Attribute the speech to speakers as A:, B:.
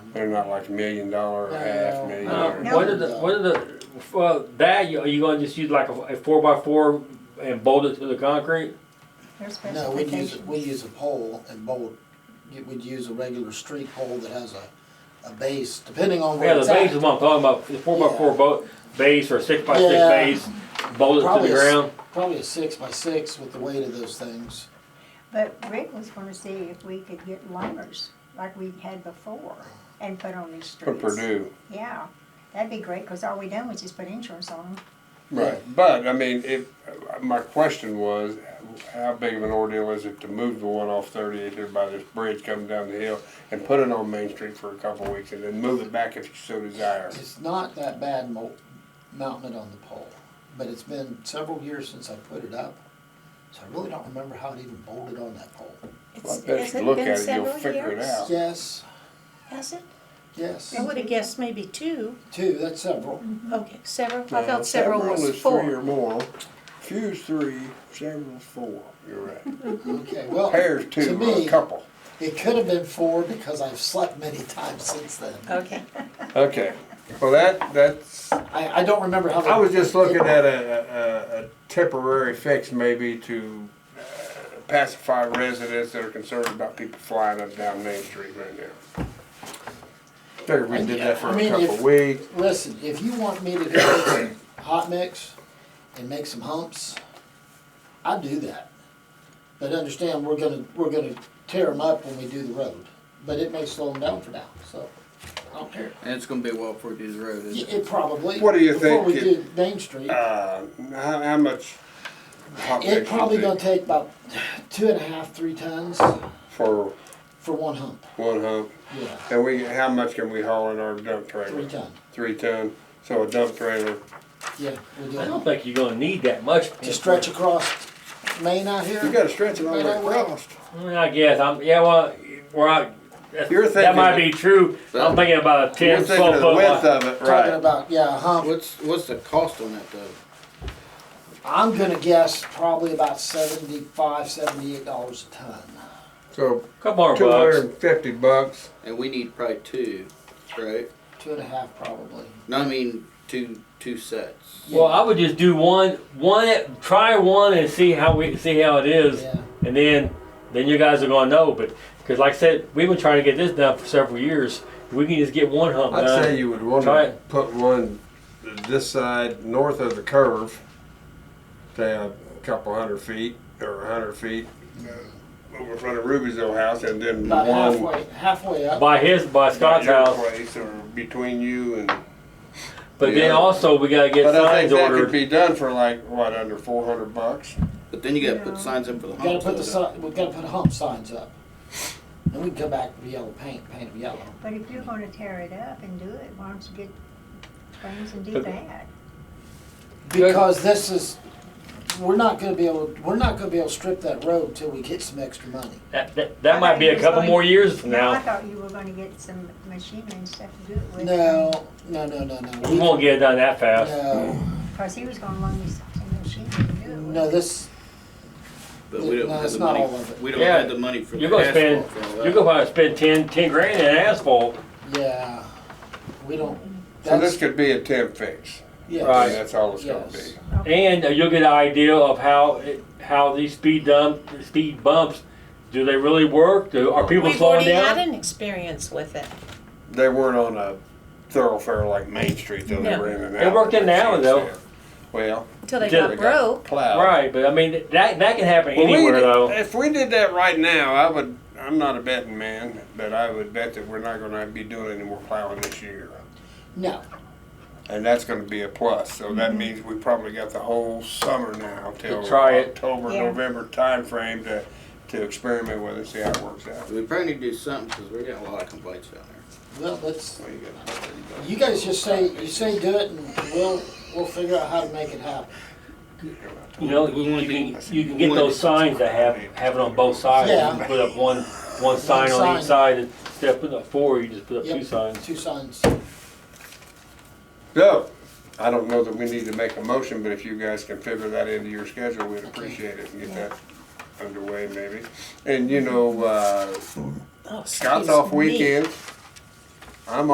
A: They're not like a million dollar, or half million
B: um,
C: Uh,
A: dollar.
C: No.
B: What are the, what are the, uh, value, are you gonna just use like a, a four by four and bolt it to the concrete?
C: Their
D: No, we use, we
C: specifications.
D: use a pole and bolt, you- we'd use a regular street pole that has a, a base, depending on
B: Yeah,
D: where
B: the
D: it's
B: base is
D: at.
B: what I'm talking about, the four by four
D: Yeah.
B: boat, base or six by six
D: Yeah.
B: base, bolt it to
D: Probably
B: the
D: a s-
B: ground.
D: Probably a six by six with the weight of those things.
C: But Rick was gonna see if we could get lumbers, like we had before, and put on these
A: For
C: streets.
A: Purdue,
C: Yeah, that'd be great, cause all we done was just put insurance on them.
A: right, but, I mean, if, my question was, how big of an ordeal is it to move the one off thirty-eight there by this bridge coming down the hill and put it on Main Street for a couple of weeks and then move it back if you so desire?
D: It's not that bad mo- mounting it on the pole, but it's been several years since I put it up. So I really don't remember how it even bolted on that pole.
A: Well, I
E: It's-
A: bet
E: has
A: you
E: it
A: look
E: been
A: at it, you'll
E: several
A: figure it
E: years?
A: out.
D: Yes,
E: Has it?
D: yes,
E: I would have guessed maybe two.
D: two, that's several.
A: Mm-hmm.
E: Okay, several. I
A: Now,
E: thought several was
A: is Three or
E: four.
A: more, few's three, several's four, you're right.
D: Okay, well,
A: Pairs
D: to
A: two, or a
D: me,
A: couple.
D: it could have been four because I've slept many times since then.
B: Uh,
E: Okay.
A: Okay, well, that, that's,
D: I, I don't remember how.
A: I was just looking at a, a, a temporary fix maybe to uh, pacify residents that are concerned about people flying up down Main Street right now. Figured we did that for
D: I
A: a
D: mean,
A: couple
D: if-
A: weeks.
D: Listen, if you want me to go make some hot mix and make some humps, I'd do that. But understand, we're gonna, we're gonna tear them up when we do the road, but it may slow them down for now, so, I don't care.
F: And it's gonna be a while before we do the road,
D: Y-
F: isn't it?
D: It probably.
A: What do you
D: Before
A: think
D: we do
A: it-
D: Main Street,
A: Uh, how, how much?
D: it
A: population
D: probably
A: is it
D: gonna take about two and a half, three tons
A: For
D: for one hump,
A: one hump,
D: yeah,
A: and we, how much can we haul in our dump
D: three
A: trailer?
D: ton,
A: Three ton, so a dump trailer,
D: yeah, we do.
B: I don't
D: it.
B: think you're gonna need that much.
D: To stretch across Main out here.
A: you gotta stretch it all the way across.
B: Mm, I guess, I'm, yeah, well, we're not,
A: You're
B: that's- that
A: thinking
B: might
A: of-
B: be true, I'm thinking about a
A: You're
B: ten,
A: thinking
B: twelve
A: of the
B: foot
A: width
B: line.
A: of it,
D: Talking
A: right?
D: about, yeah, a hump,
F: uh, What's, what's the cost on that though?
D: I'm gonna guess probably about seventy-five, seventy-eight dollars a ton.
A: So
B: Couple more
A: two hundred
B: bucks,
A: and fifty bucks.
F: And we need probably two, right?
D: Two and a half probably.
F: No, I mean, two, two sets.
B: well, I would just do one, one, try one and see how we, see how it is.
D: Yeah,
B: And then, then you guys are gonna know, but, cause like I said, we've been trying to get this done for several years. We can just get one hump
A: I'd say
B: done.
A: you would want
B: Uh, Try
A: to
B: it.
A: put one this side north of the curve, say a couple hundred feet or a hundred feet uh, over front of Ruby's old house, and then
D: about
A: one
D: halfway, halfway up.
B: By his, by
A: at
B: Scott's
A: your
B: house,
A: place or between you and.
B: but then
A: Yeah.
B: also we gotta get
A: But I think
B: signs
A: that could
B: ordered.
A: be done for like what under four hundred bucks.
F: But then you gotta
C: Yeah.
F: put signs in for the
D: We Gotta
F: hump.
D: put the si, we gotta put hump signs up. And we can come back with yellow paint, paint it yellow.
C: But if you're gonna tear it up and do it, why don't you get things and do
B: But-
C: that?
D: Because this is, we're not gonna be able, we're not gonna be able to strip that road till we get some extra money.
B: That, that,
C: I
B: that might
C: thought
B: be
C: you
B: a
C: was
B: couple
C: going-
B: more years from
C: No, I
B: now.
C: thought you were gonna get some machinery and stuff to do it with.
D: No, no, no, no, no.
B: We won't get it done that fast.
D: No,
C: Cause he was gonna loan me some machinery to do it with.
D: no, this,
F: But we don't
D: No,
F: have
D: it's
F: the
D: not
F: money,
D: all of it.
F: we don't
B: Yeah.
F: have the money for the
B: You're gonna spend,
F: asphalt for all
B: you're
F: that.
B: gonna probably spend ten, ten grand in asphalt.
D: yeah, we don't.
A: So
D: that's-
A: this could be a temp fix.
D: yeah.
B: Right.
A: And that's all it's gonna
D: Yes.
A: be.
B: And uh, you'll get an idea of how, it- how these speed dump, speed bumps, do they really work? Do, are people
E: We've
B: slowing
E: already had
B: down?
E: an experience with it.
A: They weren't on a thoroughfare like Main Street though. They
E: No.
A: were in and out.
B: They worked in and
A: like
B: out,
A: she
B: though.
A: said. Well,
E: Until they
B: Until
E: got
A: they got
E: broke.
A: plowed.
B: Right, but I mean, that, that can happen
A: Well, we
B: anywhere
A: did-
B: though.
A: If we did that right now, I would, I'm not a betting man, but I would bet that we're not gonna be doing any more plowing this year.
D: No,
A: And that's gonna be a plus, so that means we probably got the whole summer now till.
B: try it.
A: October,
C: Yeah.
A: November timeframe to, to experiment with it, see how it works out.
F: We probably need to do something, cause we're getting a lot of complaints down there.
D: well, let's,
A: Well, you got-
D: You guys just say, you say do it and we'll, we'll figure out how to make it happen.
B: You know,
F: We
B: you
F: wanna
B: can,
A: be-
B: you can get those signs that have, have it on both sides. You can put up one, one sign on
D: sign.
B: each side, and instead of putting up four, you just put up two
D: Yep.
B: signs.
D: Two signs.
A: So, I don't know that we need to make a motion, but if you guys can figure that into your schedule, we'd appreciate it and get that underway maybe. And you know, uh,
E: Oh,
A: Scott's
E: excuse
A: off
E: me.
A: weekends. I'm